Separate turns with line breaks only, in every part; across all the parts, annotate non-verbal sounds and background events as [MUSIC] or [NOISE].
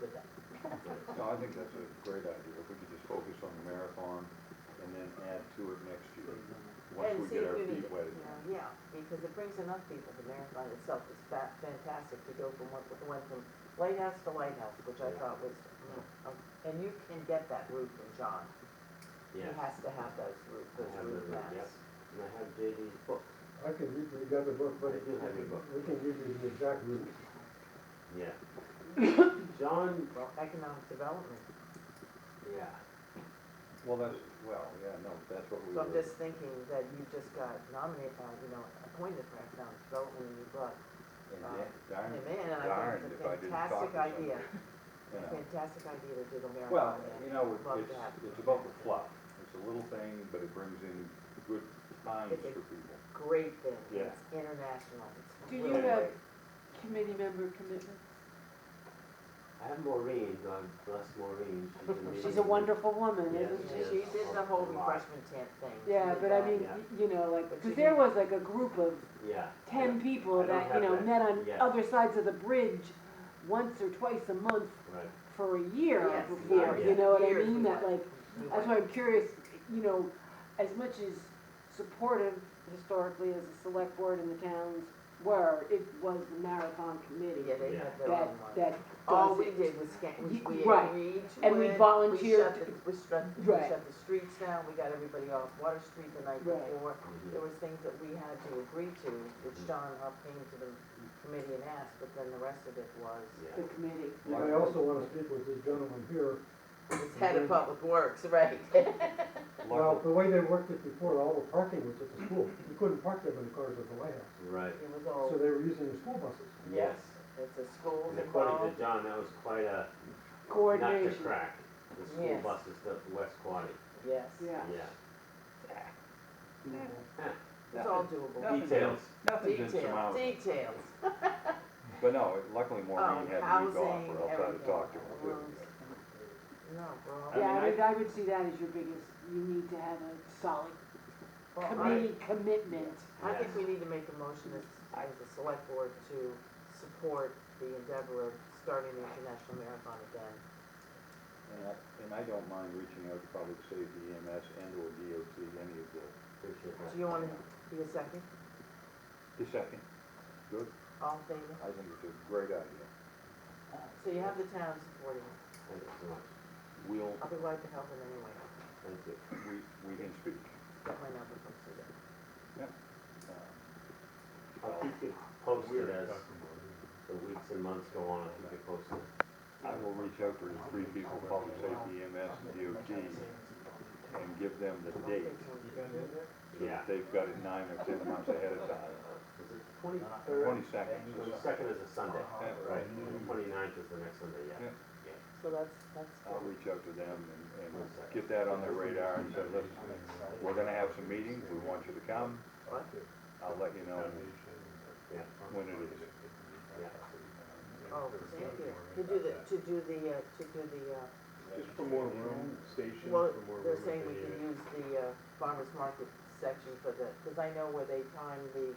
with it.
No, I think that's a great idea, if we could just focus on the marathon and then add to it next year, once
And
we
see
get
if
our
we need
feet
it.
wet.
Yeah, because it brings enough people, the marathon itself is fa- fantastic to go from, what went from White House to White House, which I
Yeah.
thought was, mm, um, and you can get that route from John. He
Yeah,
has to have those route, those
have
route
the route,
maps.
and I have JD's book.
I can read you the other book, but
I do have your book.
we can give you the exact route.
Yeah. John,
Well, economic development,
yeah,
Well, that's, well, yeah, no, that's what we
so I'm
were,
just thinking that you just got nominated, uh, you know, appointed for economic development and you brought
and
uh,
yet, darn,
him in, and I
darned
think it's
if
a
I didn't talk
fantastic
to somebody,
idea,
you know.
fantastic idea to do the marathon.
Well,
and-
you know,
love
it's,
to have-
it's about the fluff, it's a little thing, but it brings in good times
It's a-
for people.
great thing.
Yeah.
It's international. It's
Do you
really
have-
great.
Committee member commitments?
I have Maureen, God bless Maureen, she's amazing.
[LAUGHS] She's a wonderful woman,
Yes,
isn't
she
she?
She
is.
did the whole
A lot.
refreshment tent thing. She
Yeah,
did
but I
that.
mean,
Yeah.
y- you know, like,
But she
because there was like a group of
Yeah.
ten people
I don't
that, you
have
know,
that.
met on
Yeah.
other sides of the bridge once or twice a month
Right,
for a year
Yes.
before,
Yeah.
you know what I
Years
mean?
we
That
went.
like,
We
that's why
went.
I'm curious, you know, as much as supportive historically as the select board and the towns were, it was the marathon committee
Yeah, they
Yeah.
had their
that,
own one.
that
All
does
we
it.
did was scan, we,
You-
we
right.
agreed to
And we
it.
volunteered
shut the- We shut, we
Right.
shut the streets down, we got everybody off Water Street the night
Right.
before.
mhm.
There was things that we had to agree to, which
Mhm.
John Huff came to the committee and asked, but then the rest of it was,
The
yeah,
committee.
I also wanna speak with this gentleman here.
it's head of public works, right? [LAUGHS]
Well,
Luckily,
the way they worked it before, all the parking was at the school. You couldn't park them in the cars at the White House.
right,
It was
So
all,
they were using the school buses.
yes.
it's a school
And according
involved.
to John, that was quite a nut to
Coordination.
crack, the school
Yes.
buses to West Quad,
Yes,
Yeah.
yeah.
it's all doable.
Nothing.
Details,
nothing's
Details,
insurmountable,
details.
but no, luckily Maureen
Oh,
had me off,
housing,
or else I'd have
everything.
talked to her. too.
Rooms. No,
I
bro.
mean,
Yeah, I
I-
would, I would see that as your biggest, you need to have a solid
Well, I,
committee commitment.
I think we need to make a motion as, as a select board to support the endeavor of starting the international marathon again.
And I, and I don't mind reaching out to public safety EMS and or DOT, any of the,
appreciate that.
Do you wanna be a second?
the second, good,
All in favor?
I think it's a great idea.
So you have the town supporting it.
Thank you so much,
We'll,
I'll be glad to help in any way.
thank you.
we, we can speak.
Got my number from Susan.
Uh,
I'll keep you posted as the weeks and months go on, I'll keep you posted.
I will reach out to the three people, public safety EMS and DOT, and give them the
Don't
date,
think so.
so that they've got it nine or ten months ahead of time.
Is it twenty-third?
Twenty-second,
Twenty-second is a Sunday,
Yeah,
right,
right.
twenty-ninth is the next Sunday, yeah.
So that's, that's
I'll
good.
uh, reach out to them and, and get that on their radar and say, listen, we're gonna have some meetings, we want you to come,
What?
I'll let you know
Yeah.
when it is.
Oh, thank you. To do the, to do the, uh, to do the, uh,
Just for more room, station,
Well,
for more room.
they're
if
saying we
they need
can
it.
use the uh, farmer's market section for the, because I know where they timed the,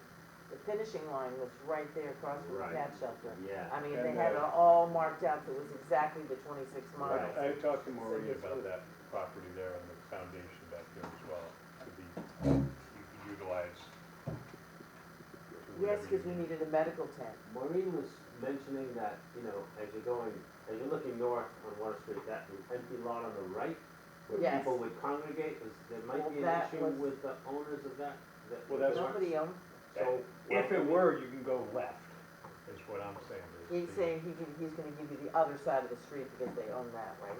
the finishing line was right there across from the
Right.
cat shelter.
Yeah.
I mean,
And,
they had it
uh,
all marked out, it was exactly the twenty-six miles.
I, I talked to
So
Maureen
this
about
was-
that property there and the foundation back there as well, to be u- utilized. to
Yes,
whatever you
because we needed a medical tent.
Maureen was mentioning that, you know, as you're going, as you're looking north on Water Street, that empty lot on the right, where
Yes.
people would congregate, was, there
Well,
might be an
that
issue
was-
with the owners of that, that.
Well, that's-
Nobody owned,
So.
If it were, you can go left, is what I'm saying. is
he's
the-
saying he can, he's gonna give you the other side of the street because they own that, right?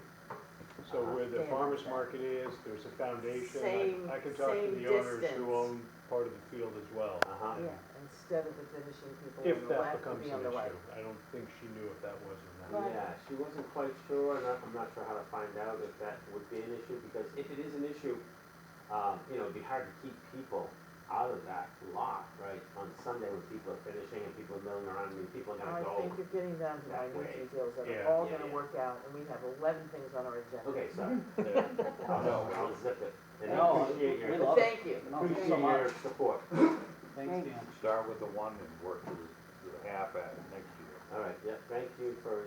So where the
Yeah.
farmer's market is, there's a foundation,
uh, Same-
I, I can talk to
same
the owners
distance.
who own part of the field as well.
Uh-huh,
Yeah, instead of the finishing people
If
on the
that
left, it'd
becomes
be
an
on the right.
issue, I don't think she knew if that was or not.
Right.
yeah, she wasn't quite sure, and I- I'm not sure how to find out if that would be an issue, because if it is an issue, um, you know, it'd be hard to keep people out of that lot, right, on Sunday when people are finishing and people are milling around, I mean, people are
Oh, I
gonna go.
think you're getting down to
that
minute
way.
details that are
Yeah.
all
Yeah,
gonna
yeah.
work out, and we have eleven things on our agenda.
Okay,
[LAUGHS]
sorry.
Yeah.
I'll, I'll zip it. And I
No,
appreciate your,
we love
Thank you.
appreciate your support.
Thanks, Dan.
Start with the one and work to the half at next year.
All right, yeah, thank you for